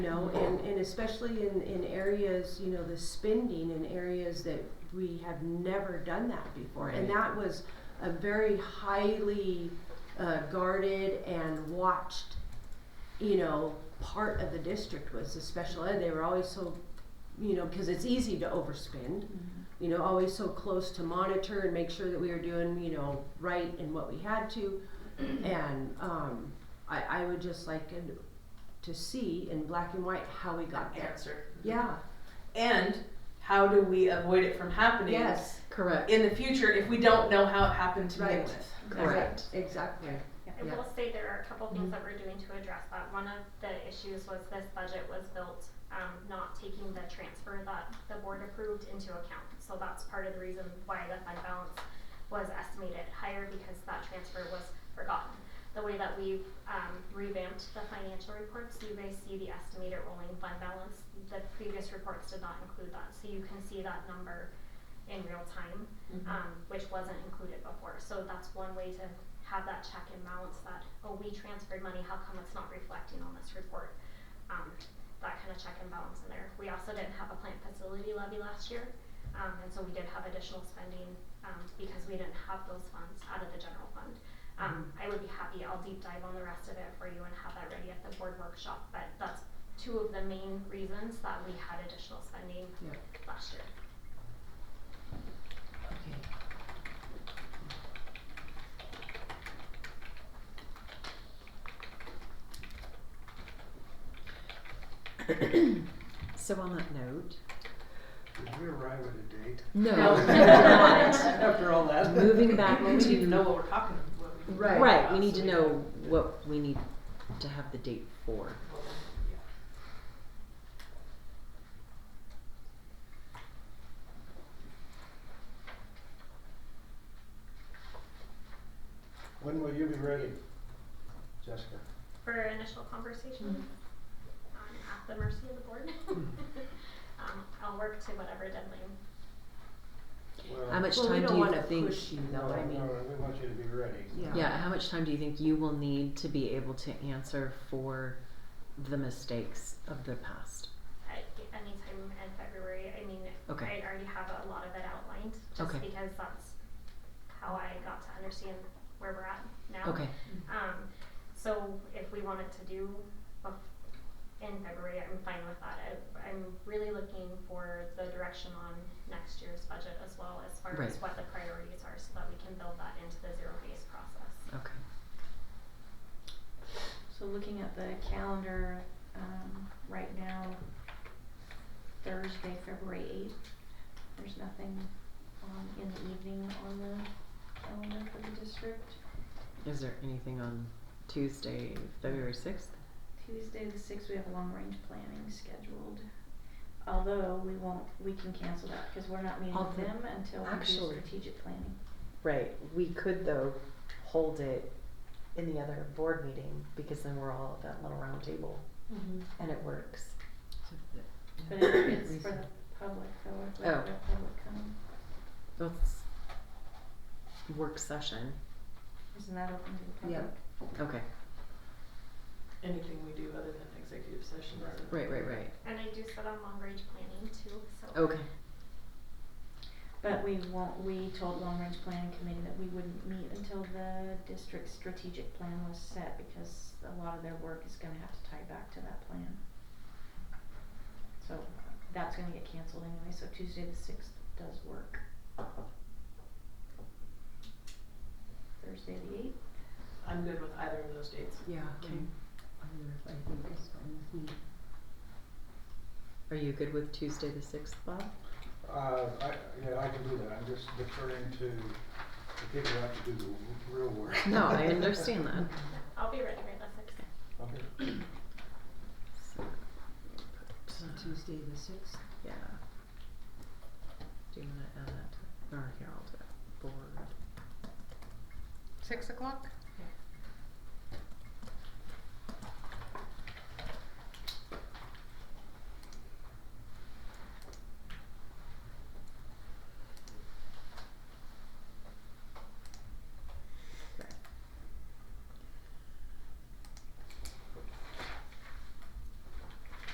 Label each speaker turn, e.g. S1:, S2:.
S1: You know, and, and especially in, in areas, you know, the spending in areas that we have never done that before. And
S2: Right.
S1: that was a very highly uh, guarded and watched, you know, part of the district was the special ed. They were always so, you know, because it's easy to overspend,
S3: Mm-hmm.
S1: you know, always so close to monitor and make sure that we were doing, you know, right and what we had to. And um, I, I would just like an- to see in black and white how we got there.
S2: answer.
S1: Yeah.
S2: And how do we avoid it from happening
S1: Yes.
S3: Correct.
S2: in the future if we don't know how it happened to begin
S1: Right.
S2: with?
S3: Correct.
S1: Exactly.
S4: I
S3: Yeah.
S4: will say there are a couple things that we're doing to address that. One of the issues was this budget was built, um, not taking the transfer that the board approved into account. So that's part of the reason why the fund balance was estimated higher because that transfer was forgotten. The way that we've, um, revamped the financial reports, you guys see the estimated rolling fund balance. The previous reports did not include that, so you can see that number in real time um, which wasn't included before. So that's one way to have that check and balance that, oh, we transferred money, how come it's not reflecting on this report? Um, that kind of check and balance in there. We also didn't have a plant facility levy last year, um, and so we did have additional spending, um, because we didn't have those funds out of the general fund. Um, I would be happy, I'll deep dive on the rest of it for you and have that ready at the board workshop, but that's two of the main reasons that we had additional spending
S1: Yeah.
S4: last year.
S3: So on that note,
S5: Did we arrive at a date?
S3: no.
S2: No.
S5: After all that.
S3: Moving back
S2: Well, we need to know
S3: to
S2: what we're talking about. what we-
S3: right.
S1: Right.
S3: We need to
S2: So we
S3: know
S2: can-
S3: what we need to have the date for.
S5: When will you be ready, Jessica?
S4: for initial conversation.
S3: Mm-hmm.
S4: I'm at the mercy of the board. Um, I'll work to whatever deadline.
S3: How
S5: Well,
S3: much
S1: well, we
S3: time
S1: don't
S3: do you
S1: want to
S3: think?
S1: push you
S5: no,
S1: though. I mean,
S5: no, we want you to be ready.
S1: yeah.
S3: Yeah. How much time do you think you will need to be able to answer for the mistakes of the past?
S4: I, anytime in February, I mean,
S3: Okay.
S4: I already have a lot of it outlined, just
S3: Okay.
S4: because that's how I got to understand where we're at now.
S3: Okay.
S4: Um, so if we wanted to do bef- in February, I'm fine with that. I, I'm really looking for the direction on next year's budget as well, as far as
S3: Right.
S4: what the priorities are, so that we can build that into the zero-based process.
S3: Okay.
S6: So looking at the calendar, um, right now, Thursday, February eighth, there's nothing, um, in the evening on the calendar for the district.
S3: Is there anything on Tuesday, February sixth?
S6: Tuesday, the sixth, we have long-range planning scheduled, although we won't, we can cancel that, cause we're not meeting
S3: I'll
S6: with
S3: put-
S6: them until we do
S3: actually-
S6: strategic planning.
S7: Right, we could though hold it in the other board meeting because then we're all at that little round table
S2: Mhm.
S7: and it works.
S6: But it- it's for the public, though, if we have
S3: Oh.
S6: the public come,
S3: That's work session.
S6: isn't that open to the public?
S1: Yeah.
S3: Okay.
S2: Anything we do other than executive session. is-
S3: Right. Right. Right.
S4: And I do sit on long range planning too, so.
S3: Okay.
S6: But we won't, we told Long Range Planning Committee that we wouldn't meet until the district's strategic plan was set because a lot of their work is gonna have to tie back to that plan. So that's gonna get canceled anyway, so Tuesday the sixth does work. Thursday the eighth,
S2: I'm good with either of those dates.
S1: Yeah. I think that's fine with me.
S3: Are you good with Tuesday the sixth, Bob?
S5: Uh, I, yeah, I can do that, I'm just deferring to the people who have to do the w- real work.
S3: No, I understand that.
S4: I'll be ready right the sixth.
S5: Okay.
S3: So,
S1: So Tuesday the sixth.
S3: yeah. Do you want to add that? To, or here, I'll do it. Board.
S8: Six o'clock?